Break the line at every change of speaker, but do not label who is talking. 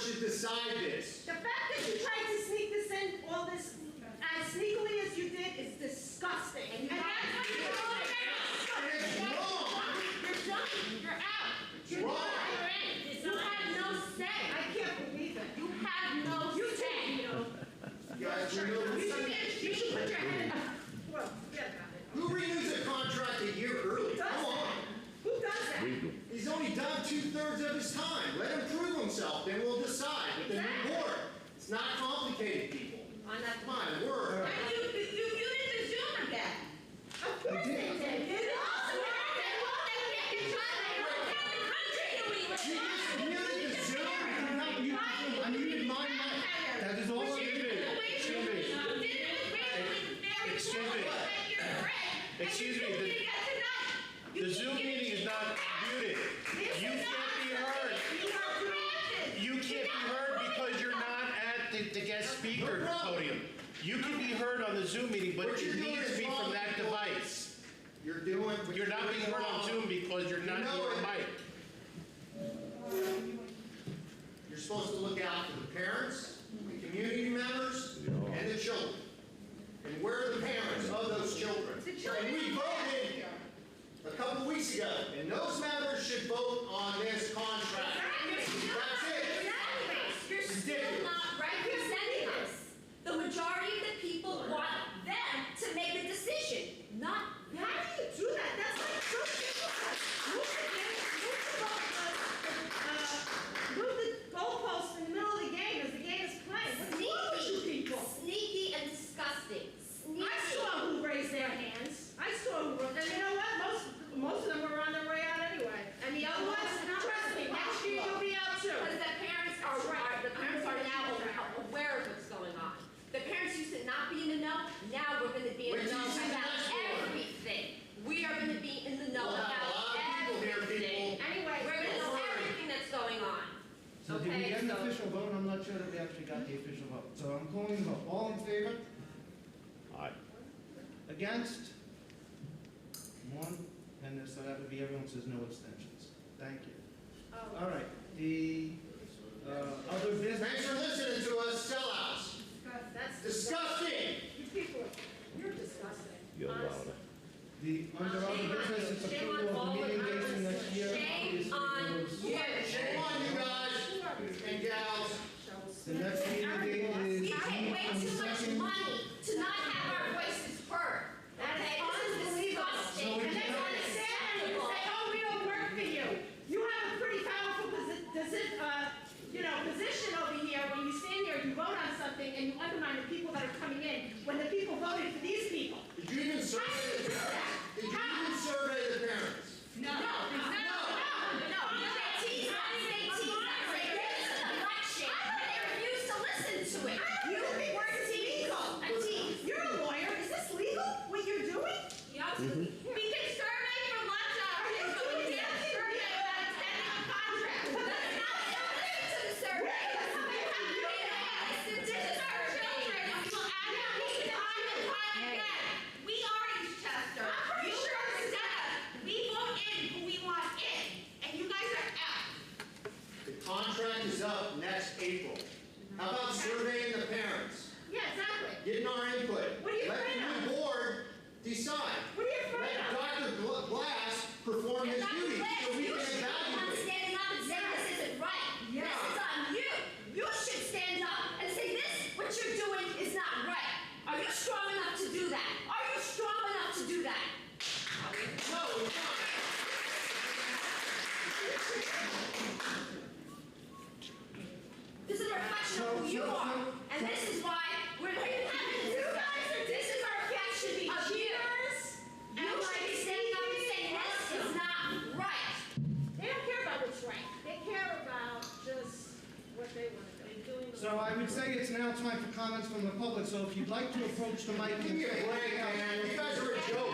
should decide this.
The fact that you tried to sneak this in, all this, as sneakily as you did, is disgusting. And that's why you're all
You're done, you're out. You're
Wrong.
done, you're in. You have no say.
I can't believe it.
You have no say, you
You guys renewed,
You should, you should put your head up.
Well, forget about it.
who renews a contract a year early?
Who does
Come
that?
on.
Who does that?
He's only done two-thirds of his time. Let him prove himself, then we'll decide with the new
Exactly.
board. It's not complicated, people.
On that.
My word.
And you, you, you you did the Zoom again.
Of course they did. It
Also,
is.
we're out there, well, then we have to try, like, what kind of country do we live
You
in?
just muted the Zoom. You did not mute the Zoom. I muted my mic. That is all I
You did it
needed.
with racially, you did it with racially, very
Excuse me.
poorly, and you're correct. And
Excuse
you
me,
did it again
the-
tonight. You
The
did
Zoom
it
meeting is not muted.
This
You
is
can't be
not
heard.
something You are drafted.
You can't be heard because you're not at the, the guest speaker podium. You can be heard on the Zoom meeting, but
What you're
you
doing
need to
is
be
wrong,
from that
people.
device.
You're doing. what
You're not
doing
being heard on
wrong.
Zoom because you're not
know
your
it.
mic.
You're supposed to look out for the parents, the community members, and the children. And where are the parents of those children?
The children
And we
are back
voted a couple weeks ago, and those members should vote on this contract. That's it.
Exactly. You're still not representing us. The majority of the people want them to make the decision, not
How do you do that? That's like so difficult. Move the game, move the ball, uh, uh, move the goalpost in the middle of the game as the game is playing. What's wrong with you people?
Sneaky and disgusting. Sneaky.
I saw who raised their hands. I saw who, and you know what? Most, most of them were on their way out anyway. And the other ones, trust me, next year you'll be out too.
Because the parents are, are- the parents are now aware of what's going on. The parents used to not be in the know, now we're gonna be in
Wait
the
till
know
you see the
about
next one.
everything. We are gonna be in the know
We'll
about
have a lot of people here,
everything.
people.
Anyway,
We're gonna
Don't
know
worry.
everything that's going on.
So did we
Okay,
get an
so-
official vote? I'm not sure that we actually got the official vote. So I'm calling the vote. All in favor?
Aye.
Against? One, and so that would be everyone says no abstentions. Thank you.
Oh.
All right, the uh, other
Thanks
business?
for listening to us sellouts.
God, oh, That's
Disgusting.
You people, you're disgusting. honestly.
The under other business is
Shame on
approval of
all of
meeting dates
us.
for next year.
Shame on
Obviously,
you.
Shame on you guys
You are disgusting.
and gals.
The next meeting date is
We pay way too much
22nd.
money to not have our voices heard.
That is
Okay, this is
unbelievable.
disgusting.
And
And
they
that's
want to stand and
unacceptable.
say, oh, we don't work for you. You have a pretty powerful posi- posi- uh, you know, position over here. When you stand here, you vote on something and you undermine the people that are coming in, when the people voted for these people.
Did you even survey the parents? Did you even survey the parents?
No, no, no, no. They tease us, they tease us, they raise the election, and they refuse to listen to it. You were teased, a tease.
You're a lawyer. Is this legal, what you're doing?
Yup. We can survey for lunch hours, but we can't survey without sending a contract. That's not something to the survey. This is our children. We will add our name time and time again. We are Eastchester. You represent us. We vote in who we want in, and you guys are out.
The contract is up next April. How about surveying the parents?
Yeah, exactly.
Getting our input.
What are you afraid
Let
of?
the new board decide.
What are you afraid
Let
of?
Dr. Gl- Glass perform his duty so we can evaluate.
standing up and saying this isn't right. This is on you. You should stand up and say this, what you're doing is not right. Are you strong enough to do that? Are you strong enough to do that?
No, we're not.
This is a reflection of who you are. And this is why we're not even having this discussion. This is our reflection of you. You should be standing up and saying this is not right.
They don't care about what's right. They care about just what they want to do.
So I would say it's now time for comments from the public, so if you'd like to approach the mic
Give
and
me a
say,
break, man. You guys are a joke.